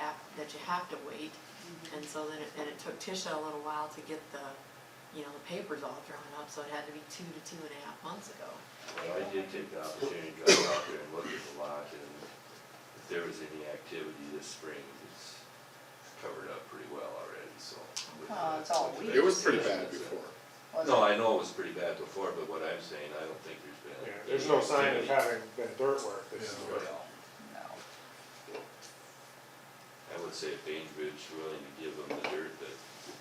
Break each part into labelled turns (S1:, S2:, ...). S1: that you have to wait. And so then, it- and it took Tisha a little while to get the, you know, the papers all drawn up, so it had to be two to two and a half months ago.
S2: Well, I did take the opportunity to drive out there and look at the lot, and if there was any activity this spring, it's covered up pretty well already, so. with
S3: Well,
S2: the-
S3: it's all
S2: with the
S3: weeds.
S4: It was pretty bad
S2: vegetation, so-
S4: before.
S3: Was
S2: No, I
S3: it?
S2: know it was pretty bad before, but what I'm saying, I don't think there's been.
S5: Yeah, there's no sign
S2: any
S5: of having been dirt work
S2: activity
S5: this
S2: at
S5: year.
S2: all.
S3: No.
S2: I would say if Bainbridge willing to give them the dirt that,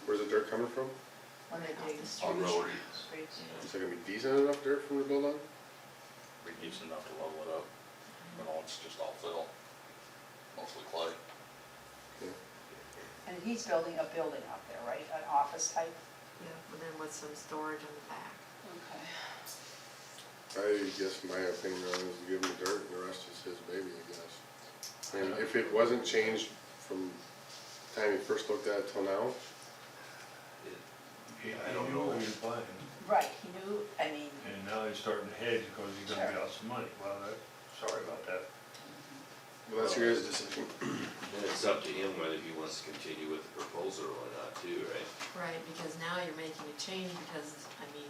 S4: Where's the dirt coming from?
S3: When they
S1: Off
S3: dig
S1: the
S2: on
S1: street.
S2: road,
S3: streets.
S4: Is there gonna be decent enough dirt for them to build on?
S6: be decent enough to level it up, you know, it's just all fill, mostly clay.
S4: Yeah.
S3: And he's building a building out there, right, an office type?
S1: Yeah, and then with some storage on the back.
S3: Okay.
S4: I guess my opinion on it is give him the dirt and the rest is his baby, I guess. And if it wasn't changed from the time he first looked at it till now,
S2: it- I don't know.
S7: He knew what he was buying,
S3: Right, he knew, I mean,
S7: and now he's starting to hedge because he's gonna be out some money. Well, that, sorry about that.
S4: well, that's your guys' decision.
S2: then it's up to him whether he wants to continue with the proposal or not too, right?
S1: Right, because now you're making a change, because, I mean,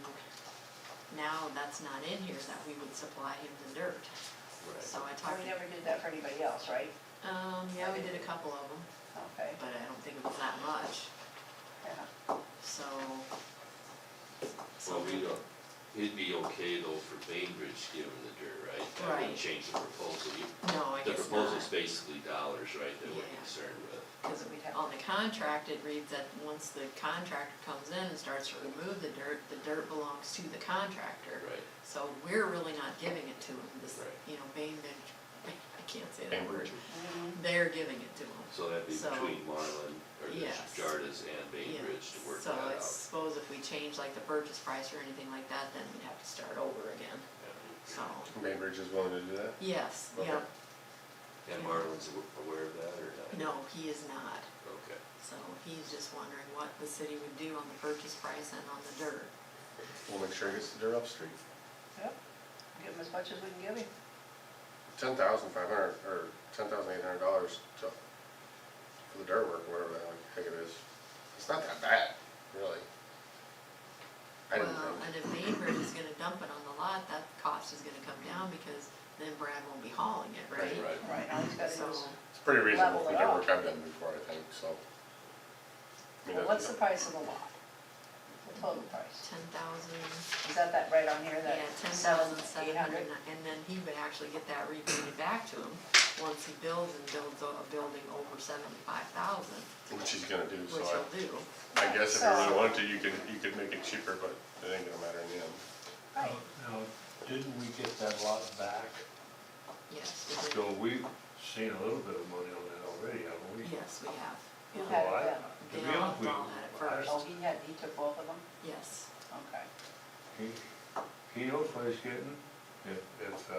S1: now that's not in here that we would supply him the dirt. So I talked,
S3: we never did that for anybody else, right?
S1: um, Oh, yeah, we did a couple of them,
S3: Okay,
S1: but I don't think it was that much,
S3: yeah.
S1: so. so
S2: Well, we don't, it'd be okay though for Bainbridge giving the dirt, right? That
S1: Right.
S2: wouldn't change the proposal. You-
S1: No, I
S2: uh, The
S1: guess not,
S2: proposal's basically dollars, right, that we're
S1: Yeah.
S2: concerned with.
S1: because on the contract, it reads that once the contractor comes in and starts to remove the dirt, the dirt belongs to the contractor.
S2: Right.
S1: So we're really not giving it to him, this,
S2: Right.
S1: you know, Bainbridge, I can't say that word, they're giving it to him.
S2: So that'd be
S1: So-
S2: between Marlin, or the
S1: Yes.
S2: Jardas and Bainbridge to work
S1: Yes, So
S2: that
S1: I
S2: out.
S1: suppose if we change like the purchase price or anything like that, then we'd have to start over again,
S2: Yeah.
S1: so,
S4: Bainbridge is willing to do that?
S1: yes, yeah,
S4: Okay.
S2: And Marlin's aw- aware of that or not?
S1: no, he is not.
S2: Okay.
S1: So he's just wondering what the city would do on the purchase price and on the dirt.
S4: We'll make sure he gets the dirt up street.
S3: Yep, give him as much as we can give him.
S4: Ten thousand five hundred, or ten thousand eight hundred dollars to, for the dirt work, whatever the heck it is. It's not that bad, really. I didn't
S1: Well,
S4: think.
S1: and if Bainbridge is gonna dump it on the lot, that cost is gonna come down because then Brad won't be hauling it, right?
S2: Right, right.
S3: Right, all he's gotta do is,
S1: So,
S4: It's pretty reasonable
S3: Level
S4: for
S3: it
S4: dirt
S3: out.
S4: work I've done before, I think, so. I mean,
S3: well, what's the
S4: that's-
S3: price of the lot? The total price?
S1: ten thousand.
S3: Is that that right on here,
S1: Yeah,
S3: that
S1: ten
S3: seven,
S1: thousand
S3: eight
S1: seven
S3: hundred?
S1: hundred, and then he would actually get that repaid back to him, once he builds and builds a a building over seventy-five thousand,
S4: Which he's gonna do, so
S1: which
S4: I.
S1: he'll do.
S4: I guess if you
S3: So-
S4: really wanted to, you could, you could make it cheaper, but it ain't gonna matter in the end.
S3: Right,
S7: Now, now, didn't we get that lot back?
S1: Yes, we
S7: So
S1: do,
S7: we've seen a little bit of money on that already, haven't we?
S1: yes, we have,
S3: who
S7: So
S3: had uh, it
S7: I-
S3: then?
S7: To be
S1: They all
S7: honest, we,
S1: bought it
S7: I-
S1: first.
S3: Oh, he had, he took both of them?
S1: yes,
S3: Okay.
S7: he, he knows what he's getting. If, if, uh,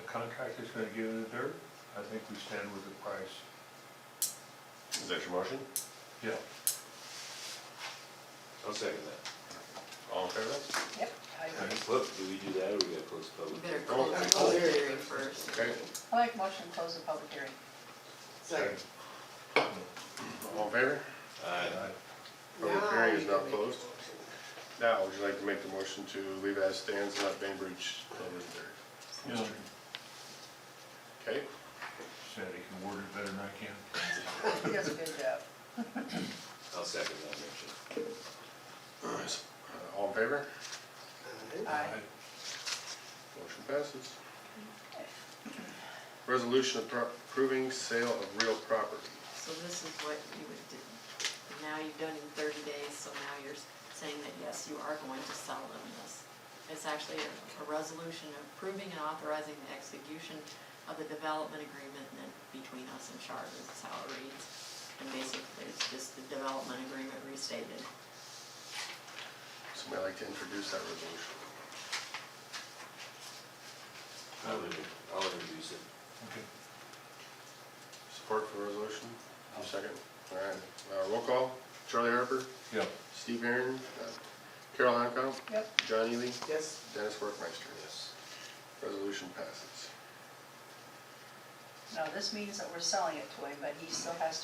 S7: the contractor's gonna give him the dirt, I think we stand with the price.
S4: Is that your motion?
S7: Yeah,
S2: I'll second that.
S4: All in favor?
S3: Yep, I agree.
S2: Whoop, do we do that or we gotta close
S1: we
S2: public?
S1: better
S2: hearing?
S1: close
S4: Oh,
S1: the
S4: oh,
S1: public hearing first.
S4: Okay,
S3: I like motion to close the public hearing.
S4: all in favor?
S2: Aye.
S4: Public hearing is not closed. Now, would you like to make the motion to leave as stands, and let Bainbridge cover the dirt?
S7: you know,
S4: Okay,
S7: said he can word it better than I can.
S3: He does a good job.
S2: I'll second that motion.
S4: Uh, all in favor?
S3: Aye.
S4: Motion passes. Resolution appro- approving sale of real property.
S1: So this is what you would do, and now you've done in thirty days, so now you're s- saying that, yes, you are going to sell them this. It's actually a, a resolution approving and authorizing the execution of the development agreement then between us and Charter, that's how it reads. And basically, it's just the development agreement restated.
S4: Somebody like to introduce that resolution?
S2: I'll introduce- I'll introduce it.
S7: Okay.
S4: Support for the resolution? I'll second. All right, uh, roll call, Charlie Harper,
S7: Yeah,
S4: Steve Aaron, Carol Hancock,
S3: Yep.
S4: John Ely,
S5: Yes.
S4: Dennis Workmeister.
S2: Yes.
S4: Resolution passes.
S3: Now, this means that we're selling it to him, but he still has to